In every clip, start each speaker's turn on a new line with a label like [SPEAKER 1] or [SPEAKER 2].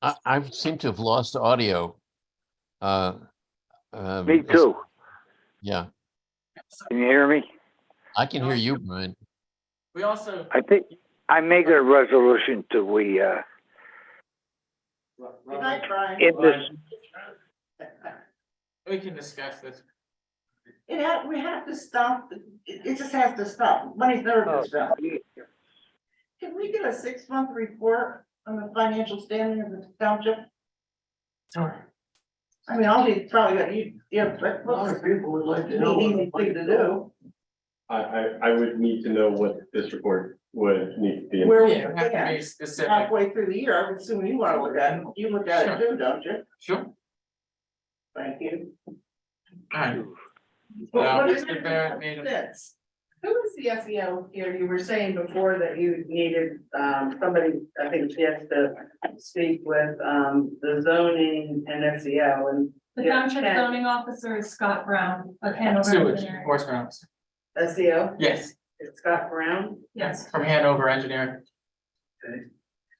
[SPEAKER 1] I, I seem to have lost audio. Uh, um,
[SPEAKER 2] Me
[SPEAKER 1] it's-
[SPEAKER 2] too.
[SPEAKER 1] Yeah,
[SPEAKER 2] Can you hear me?
[SPEAKER 1] I can hear you, Brian.
[SPEAKER 3] We also,
[SPEAKER 2] I think I make a resolution to we, uh,
[SPEAKER 3] Good night, Brian.
[SPEAKER 2] in this,
[SPEAKER 3] we can discuss this.
[SPEAKER 4] It ha we have to stop, it, it just has to stop, money's never
[SPEAKER 2] Oh.
[SPEAKER 5] Oh,
[SPEAKER 4] gonna stop. Can we get a six-month report on the financial standing of the township?
[SPEAKER 3] Sorry.
[SPEAKER 4] I mean, I'll be probably, you, you have, but, well,
[SPEAKER 5] people would like
[SPEAKER 4] it'd be an easy thing to do.
[SPEAKER 6] I, I, I would need to know what this report would need to be.
[SPEAKER 4] Where we
[SPEAKER 3] Yeah, we have to be specific.
[SPEAKER 4] halfway through the year, I would assume you wanna look at it, you look at it too, don't you?
[SPEAKER 3] Sure. All
[SPEAKER 4] Thank you.
[SPEAKER 3] right. Uh,
[SPEAKER 4] But what is
[SPEAKER 3] Mr. Barrett made a-
[SPEAKER 4] it? That's- Who was the SEO, you know, you were saying before that you needed, um, somebody, I think she has to speak with, um, the zoning and SEO and
[SPEAKER 7] The
[SPEAKER 4] Yeah.
[SPEAKER 7] township zoning officer is Scott Brown of Hanover
[SPEAKER 3] Sewage
[SPEAKER 7] Engineering.
[SPEAKER 3] enforcement officer.
[SPEAKER 4] SEO,
[SPEAKER 3] Yes,
[SPEAKER 4] it's E Scott Brown.
[SPEAKER 7] Yes,
[SPEAKER 3] from Hanover Engineering.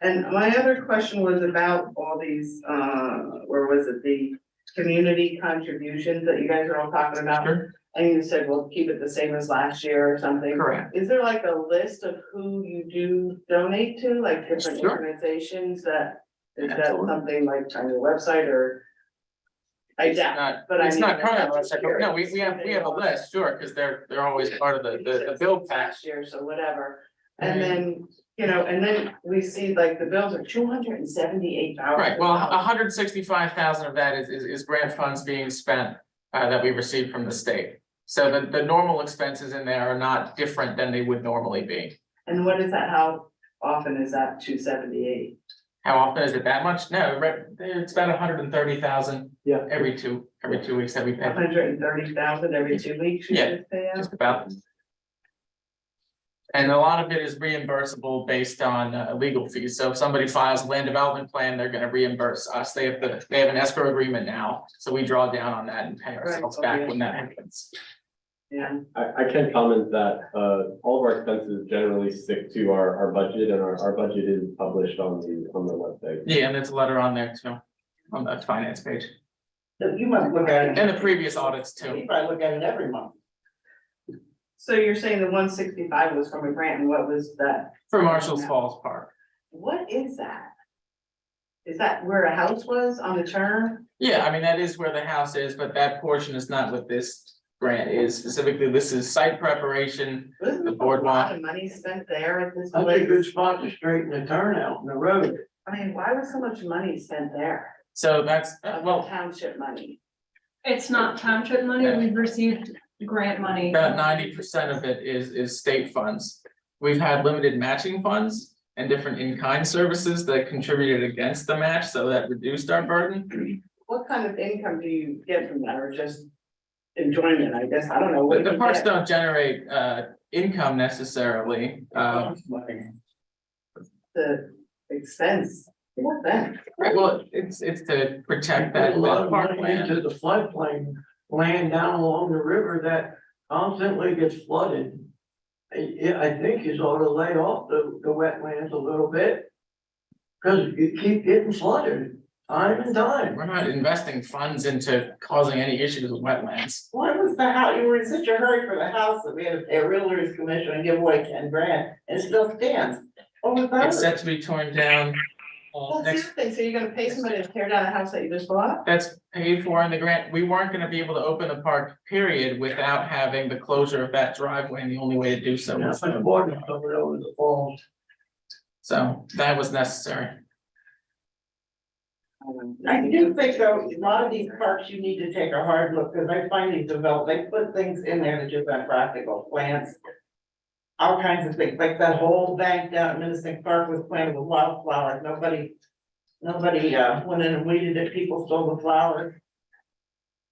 [SPEAKER 4] And my other question was about all these, uh, where was it, the community contributions that you guys are all talking about?
[SPEAKER 3] Sure.
[SPEAKER 4] And you said, well, keep it the same as last year or something.
[SPEAKER 3] Correct.
[SPEAKER 4] Is there like a list of who you do donate to, like different
[SPEAKER 3] Sure.
[SPEAKER 4] organizations that, is that
[SPEAKER 3] Absolutely.
[SPEAKER 4] something like on your website or? I
[SPEAKER 3] It's
[SPEAKER 4] doubt,
[SPEAKER 3] not,
[SPEAKER 4] but I
[SPEAKER 3] it's
[SPEAKER 4] mean,
[SPEAKER 3] not
[SPEAKER 4] that's
[SPEAKER 3] current,
[SPEAKER 4] what I'm
[SPEAKER 3] no, we, we have, we have a
[SPEAKER 4] curious.
[SPEAKER 3] list, sure, because they're, they're always part of the, the, the bill Mm-hmm. pack.
[SPEAKER 4] last year, so whatever. And then, you know, and then we see like the bills are two hundred and seventy-eight dollars.
[SPEAKER 3] Right, well, uh-huh. hundred and sixty-five thousand of that is, is, is grant funds being spent, uh, that we received from the state. So the, the normal expenses in there are not different than they would normally be.
[SPEAKER 4] And what is that, how often is that two seventy-eight?
[SPEAKER 3] How often is it that much? No, right, it's about hundred and thirty thousand.
[SPEAKER 5] Yeah.
[SPEAKER 3] Every two, every two weeks that we pay,
[SPEAKER 4] hundred and thirty thousand every two weeks you
[SPEAKER 3] Yeah.
[SPEAKER 4] just pay out?
[SPEAKER 3] just about. And a lot of it is reimbursable based on, uh, legal fees. So if somebody files a land development plan, they're gonna reimburse us. They have the, they have an escrow agreement now. So we draw down on that and pay ourselves back when that happens.
[SPEAKER 4] Yeah,
[SPEAKER 6] I, I can comment that, uh, all of our expenses generally stick to our, our budget and our, our budget is published on the, on the website.
[SPEAKER 3] Yeah, and there's a letter on there too, on the finance page,
[SPEAKER 5] You must look at it,
[SPEAKER 3] and the previous audits
[SPEAKER 5] you
[SPEAKER 3] too.
[SPEAKER 5] probably look at it every month.
[SPEAKER 4] so you're saying the one sixty-five was from a grant and what was that,
[SPEAKER 3] For Marshall's Falls Park.
[SPEAKER 4] what is that? Is that where a house was on the turn?
[SPEAKER 3] Yeah, I mean, that is where the house is, but that portion is not what this grant is specifically. This is site preparation.
[SPEAKER 4] Wasn't
[SPEAKER 3] The
[SPEAKER 4] there a lot
[SPEAKER 3] boardwalk.
[SPEAKER 4] of money spent there at this
[SPEAKER 5] That's a good
[SPEAKER 4] place?
[SPEAKER 5] spot to straighten the turnout in the road.
[SPEAKER 4] I mean, why was so much money spent there,
[SPEAKER 3] So that's, uh,
[SPEAKER 4] of the
[SPEAKER 3] well,
[SPEAKER 4] township money?
[SPEAKER 7] it's not township money, we've received grant money.
[SPEAKER 3] about ninety percent of it is, is state funds. We've had limited matching funds and different in-kind services that contributed against the match, so that reduced our burden.
[SPEAKER 4] What kind of income do you get from that, or just enjoyment, I guess, I don't know. what
[SPEAKER 3] But the
[SPEAKER 4] do you
[SPEAKER 3] parks
[SPEAKER 4] get?
[SPEAKER 3] don't generate, uh, income necessarily,
[SPEAKER 8] uh,
[SPEAKER 3] um,
[SPEAKER 4] The expense, what then?
[SPEAKER 3] Right, well, it's, it's to protect
[SPEAKER 5] Put
[SPEAKER 3] that,
[SPEAKER 5] a lot
[SPEAKER 3] that
[SPEAKER 5] of money
[SPEAKER 3] parkland.
[SPEAKER 5] into the floodplain, land down along the river that constantly gets flooded. I, yeah, I think you ought to lay off the, the wetlands a little bit. Cause you keep getting flooded time and time.
[SPEAKER 3] We're not investing funds into causing any issues with wetlands.
[SPEAKER 8] Why was the house, you were in such a hurry for the house that we had to pay a realtor's commission and give away ten grand, and it still stands. What was that?
[SPEAKER 3] It's set to be torn down. uh,
[SPEAKER 4] Well,
[SPEAKER 3] next,
[SPEAKER 4] that's the other thing, so you're gonna pay somebody to tear down a house that you just bought?
[SPEAKER 3] that's paid for in the grant. We weren't gonna be able to open the park, period, without having the closure of that driveway, and the only way to do so
[SPEAKER 5] Now,
[SPEAKER 3] was.
[SPEAKER 5] the water covered over the falls.
[SPEAKER 3] So that was necessary.
[SPEAKER 8] I do think though, a lot of these parks, you need to take a hard look, because I find these develop, they put things in there that just aren't practical, plants. All kinds of things, like that whole bank down at Minnesota Park was planted with wildflowers, nobody, nobody, uh, went in and weeded it, people stole the flowers.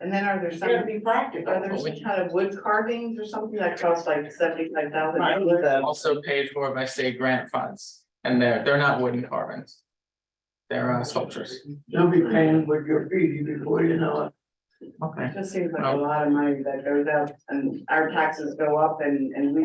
[SPEAKER 4] And then are there
[SPEAKER 8] It's gotta
[SPEAKER 4] some,
[SPEAKER 8] be practical.
[SPEAKER 4] are there some kind of wood carvings or something that costs like seventy-five thousand
[SPEAKER 8] Right,
[SPEAKER 4] dollars?
[SPEAKER 3] Also paid for by state grant funds, and they're, they're not wooden carvings. They're uh, sculptures.
[SPEAKER 5] You'll be paying with your feet before you know it.
[SPEAKER 3] Okay.
[SPEAKER 4] It just seems like a lot of money that goes out and our taxes go up and, and we